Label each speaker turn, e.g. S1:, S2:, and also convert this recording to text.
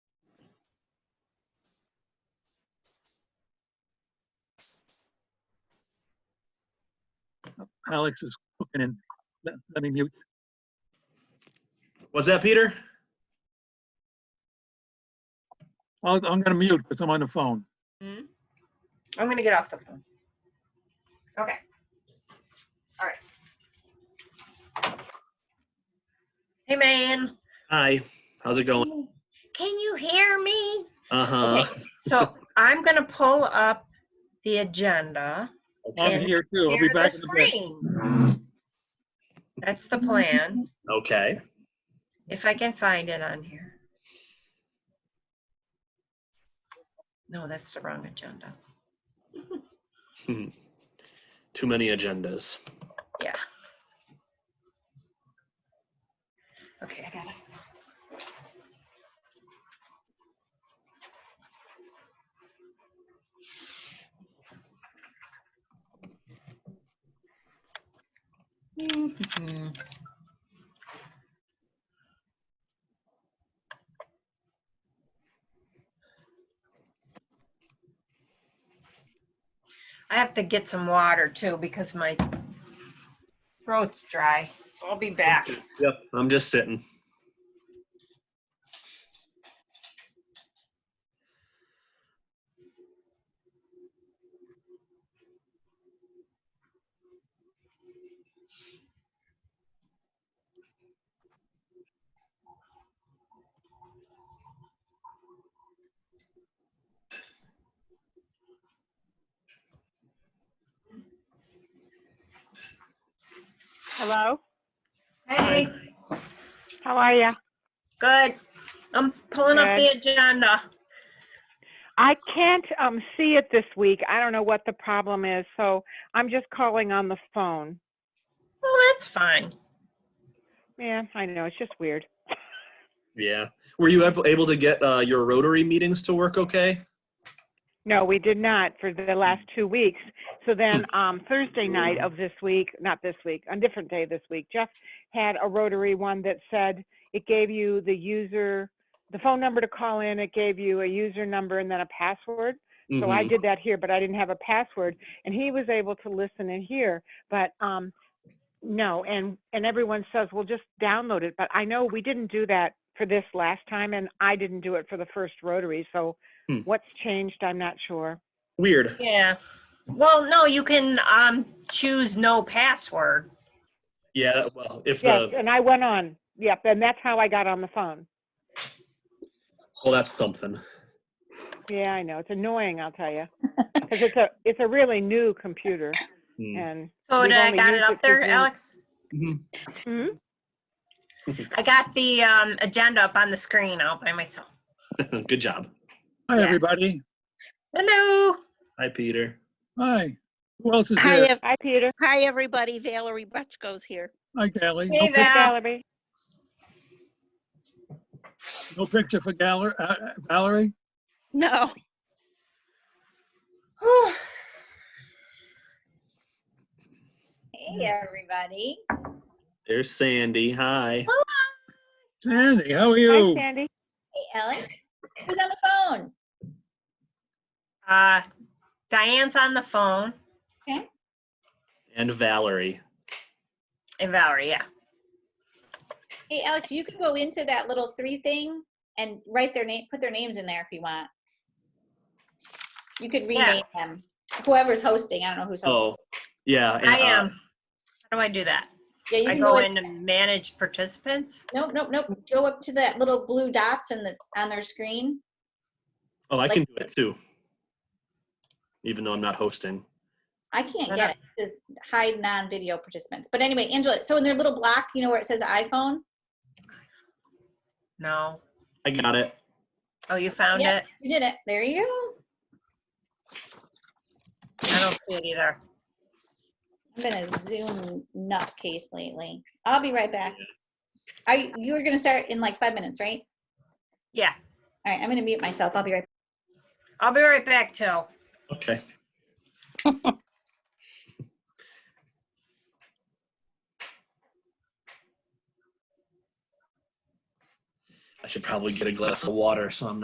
S1: Alex is cooking and let- let me mute.
S2: What's that, Peter?
S1: I'll- I'm going to mute because I'm on the phone.
S3: I'm gonna get off the phone. Okay. All right. Hey, man,
S2: Hi. How's it going?
S3: can you hear me?
S2: Uh huh.
S3: So I'm gonna pull up the agenda.
S1: I'm
S3: And
S1: here too. I'll be
S3: Share the
S1: back in a bit.
S3: screen. That's the plan,
S2: Okay.
S3: if I can find it on here. No, that's the wrong agenda.
S2: Hmm. Too many agendas.
S3: Yeah. Okay, I got it. Mhm. I have to get some water too because my throat's dry, so I'll be back.
S2: Yep. I'm just sitting.
S4: Hello,
S3: Hey,
S4: how are you?
S3: good. I'm pulling up the agenda.
S4: I can't um, see it this week. I don't know what the problem is, so I'm just calling on the phone.
S3: Oh, that's fine.
S4: Yeah, I know, it's just weird.
S2: Yeah. Were you ab- able to get uh, your Rotary meetings to work okay?
S4: No, we did not for the last two weeks. So then um, Thursday night of this week, not this week, a different day this week, Jeff had a Rotary one that said it gave you the user, the phone number to call in, it gave you a user number and then a password. So I
S2: Mhm.
S4: did that here, but I didn't have a password, and he was able to listen and hear. But um, no, and and everyone says, well, just download it. But I know we didn't do that for this last time, and I didn't do it for the first Rotary. So
S2: Hmm.
S4: what's changed? I'm not sure.
S2: Weird.
S3: Yeah. Well, no, you can um choose no password.
S2: Yeah. Well, if
S4: Yes,
S2: the
S4: and I went on. Yep, and that's how I got on the phone.
S2: well, that's something.
S4: Yeah, I know it's annoying. I'll tell you, because it's a it's a really new computer,
S2: Hmm.
S4: and
S3: So
S4: We've
S3: did I
S4: only
S3: got it
S4: used it
S3: up
S4: for
S3: there,
S4: Zoom.
S3: Alex?
S2: Mhm.
S4: hmm?
S3: I got the um agenda up on the screen all by myself.
S2: Good job.
S1: Hi,
S3: Yeah.
S1: everybody.
S3: Hello.
S2: Hi, Peter.
S1: Hi. Who else is
S5: Hi,
S1: here?
S5: ev-
S4: hi Peter,
S5: hi, everybody. Valerie Butchko's here.
S1: Hi, Gally. No
S3: Hey, Val.
S1: pic-
S3: Yeah.
S4: Valerie.
S1: No picture for Galler- uh, uh, Valerie?
S5: No,
S3: Whew.
S6: Hey, everybody.
S2: There's Sandy. Hi.
S1: Sandy, how are you?
S4: Hi Sandy.
S6: Hey, Alex. Who's on the phone?
S3: Uh, Diane's on the phone
S2: And Valerie.
S3: and Valerie, yeah.
S6: Hey, Alex, you can go into that little three thing and write their name, put their names in there if you want. You could
S3: Yeah.
S6: rename them. Whoever's hosting, I don't know who's hosting.
S2: Oh, yeah. and,
S3: I
S2: uh,
S3: am. How do I do that?
S6: Yeah, you
S3: I
S6: can
S3: go
S6: go in.
S3: in to manage participants?
S6: Nope, nope, nope. Go up to that little blue dots in the, on their screen.
S2: Oh, I can do it too. Even though I'm not hosting.
S6: I can't
S3: Why
S6: get it. It says hide non-video participants. But anyway, Angela, so in their little block, you know where it says iPhone?
S3: No.
S2: I got it.
S3: Oh, you found
S6: Yeah.
S3: it?
S6: You did it. There you go.
S3: I don't see it either.
S6: I've been a Zoom nutcase lately. I'll be right back. Are you, you were gonna start in like five minutes, right?
S3: Yeah.
S6: All right, I'm gonna mute myself. I'll be right.
S3: I'll be right back too.
S2: Okay. I should probably get a glass of water so I'm not.